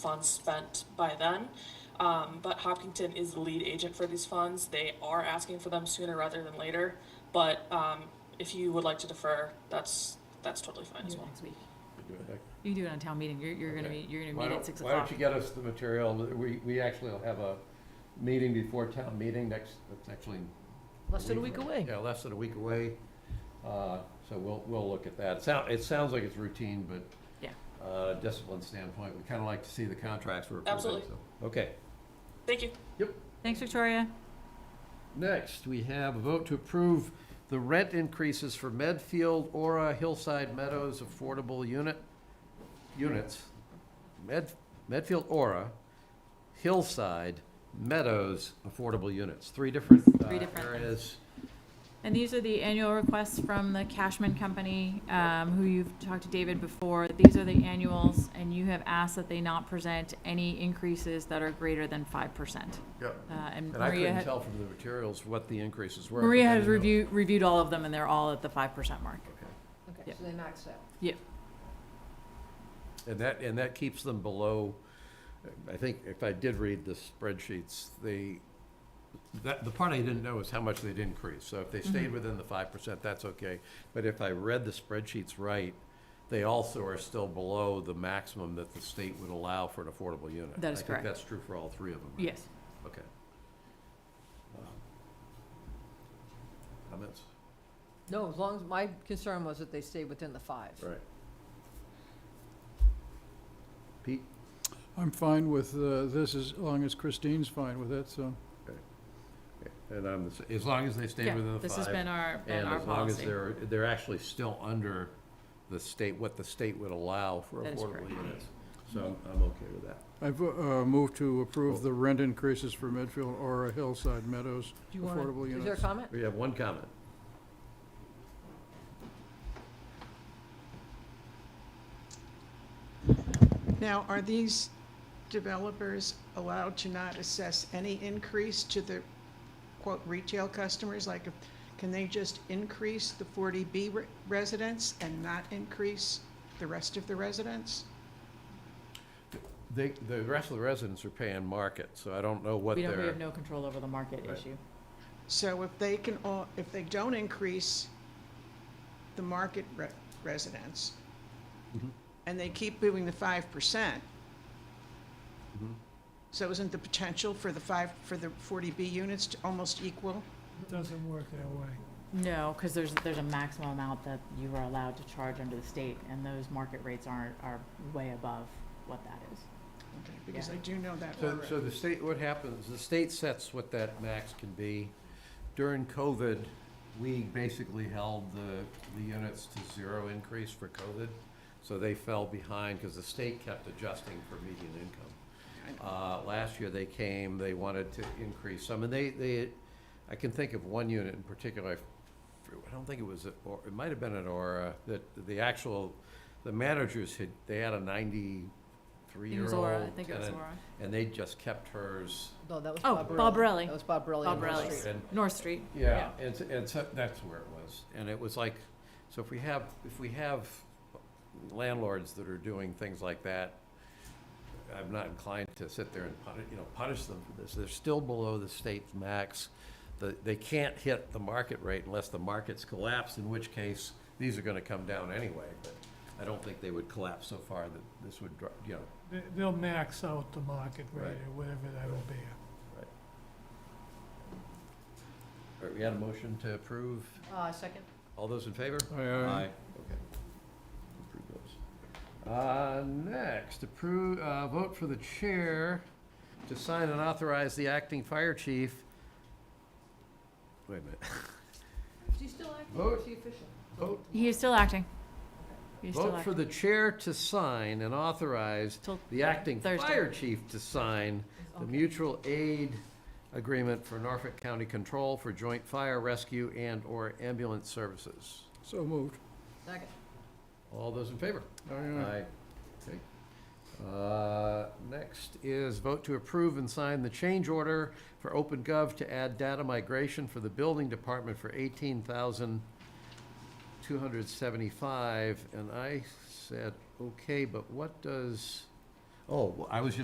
funds spent by then. Um, but Hopkinton is the lead agent for these funds. They are asking for them sooner rather than later. But um, if you would like to defer, that's that's totally fine as Do it well. next week. Do it. You can do it on town meeting. You're, you're gonna Okay. be, you're Why gonna meet don't, at six why don't o'clock. you get us the material, we, we actually will have a meeting before town meeting next, that's actually. Less than a week away. Yeah, less than a week away, uh, so we'll, we'll look at that. It sound, it sounds like it's routine, but. Yeah. Uh, discipline standpoint, we kinda like to see the contracts we're approving, so. Absolutely. Okay, Thank you. Thanks, Victoria. next, we have a vote to approve the rent increases for Medfield, Aura, Hillside Meadows Affordable Unit, units, Med, Medfield Aura, Hillside, Meadows Affordable Units, three different uh, Three different things. areas. And these are the annual requests from the Cashman Company, um, who you've talked to David before. These are the annuals, and you have asked that they not present any increases that are greater than five percent. Yep. Uh, and And I Maria couldn't had, tell from the materials what the increases were. Maria but I has didn't know. reviewed, reviewed all of them, and they're all at the five percent mark. Okay. Yeah. Okay, so they maxed out. And that, and that keeps them below, I think, if I did read the spreadsheets, they, that, the part I didn't know is how much they'd increase. So if they stayed Mhm. within the five percent, that's okay. But if I read the spreadsheets right, they also are still below the maximum that the state would allow for an affordable unit. That is I correct. think that's true for all three of them. right? Yes. Okay. Um, Comments? No, as long as, my concern was that they stay within the five. Right. Pete? I'm fine with uh, this as long as Christine's fine with it, so. And I'm, the s- as long as they stay Yeah, within the five. This has been our, been And our as long as policy. they're, they're actually still under the state, what the state would allow for That is affordable correct. units. So I'm, I'm okay with that. I've uh, moved to approve Cool. the rent increases for Medfield Aura Hillside Meadows. Do you want, Affordable is there a units. comment? We have one comment. Now, are these developers allowed to not assess any increase to the quote retail customers? Like, if- can they just increase the 40B re- residents and not increase the rest of the residents? They, the rest of the residents are paying market, so I don't know what We don't, we they're, have no control over the market Right. issue. So if they can, all if they don't increase the market re- residents, Mhm. and they keep doing the 5%, Mhm. so isn't the potential for the five, for the 40B units to almost equal? Doesn't work that way. No, because there's, there's a maximum amount that you are allowed to charge under the state, and those market rates aren't, are way above what that is. Okay, Because Yeah. I do know that So, already. so the state, what happens, the state sets what that max can be. During COVID, we basically held the, the units to zero increase for COVID. So they fell behind because the state kept adjusting for median income. Uh, last year they came, they wanted to increase some, and they, they, I can think of one unit in particular, I f- I don't think it was, at or it might have been at Aura, that the actual, the managers had, they had a ninety-three-year-old. Aura, I think it was tenant, Aura. and they just kept hers. No, that was Oh, Bob Bobrelli. That was Bob Borelli. on Wall Bobrelli. Street. And, North Street. yeah, and, s- and so, that's where it was. And it was like, so if we have, if we have landlords that are doing things like that, I'm not inclined to sit there and punish, you know, punish them for this. They're still below the state's max. The, they can't hit the market rate unless the markets collapse, in which case, these are gonna come down anyway. But I don't think they would collapse so far that this would, dr- you know, They- They'll max out the market rate Right. or whatever that'll be. All right, we had a motion to approve. Uh, second? All those in favor? Aye, aye. Okay. Approve those. Uh, next, approve, uh, vote for the chair to sign and authorize the acting fire chief. Wait a minute. Is he still acting or is he official? Vote. He is still acting. He's still Vote for acting. the chair to sign and authorize Till the acting Thursday. fire chief to sign the Okay. mutual aid agreement for Norfolk County Control for joint fire rescue and/or ambulance services. So moved. Second. All those in favor? Aye, aye. Okay. Uh, Next is vote to approve and sign the change order for OpenGov to add data migration for the building department for eighteen thousand two hundred seventy-five, and I said, okay, but what does, Oh, well, I was just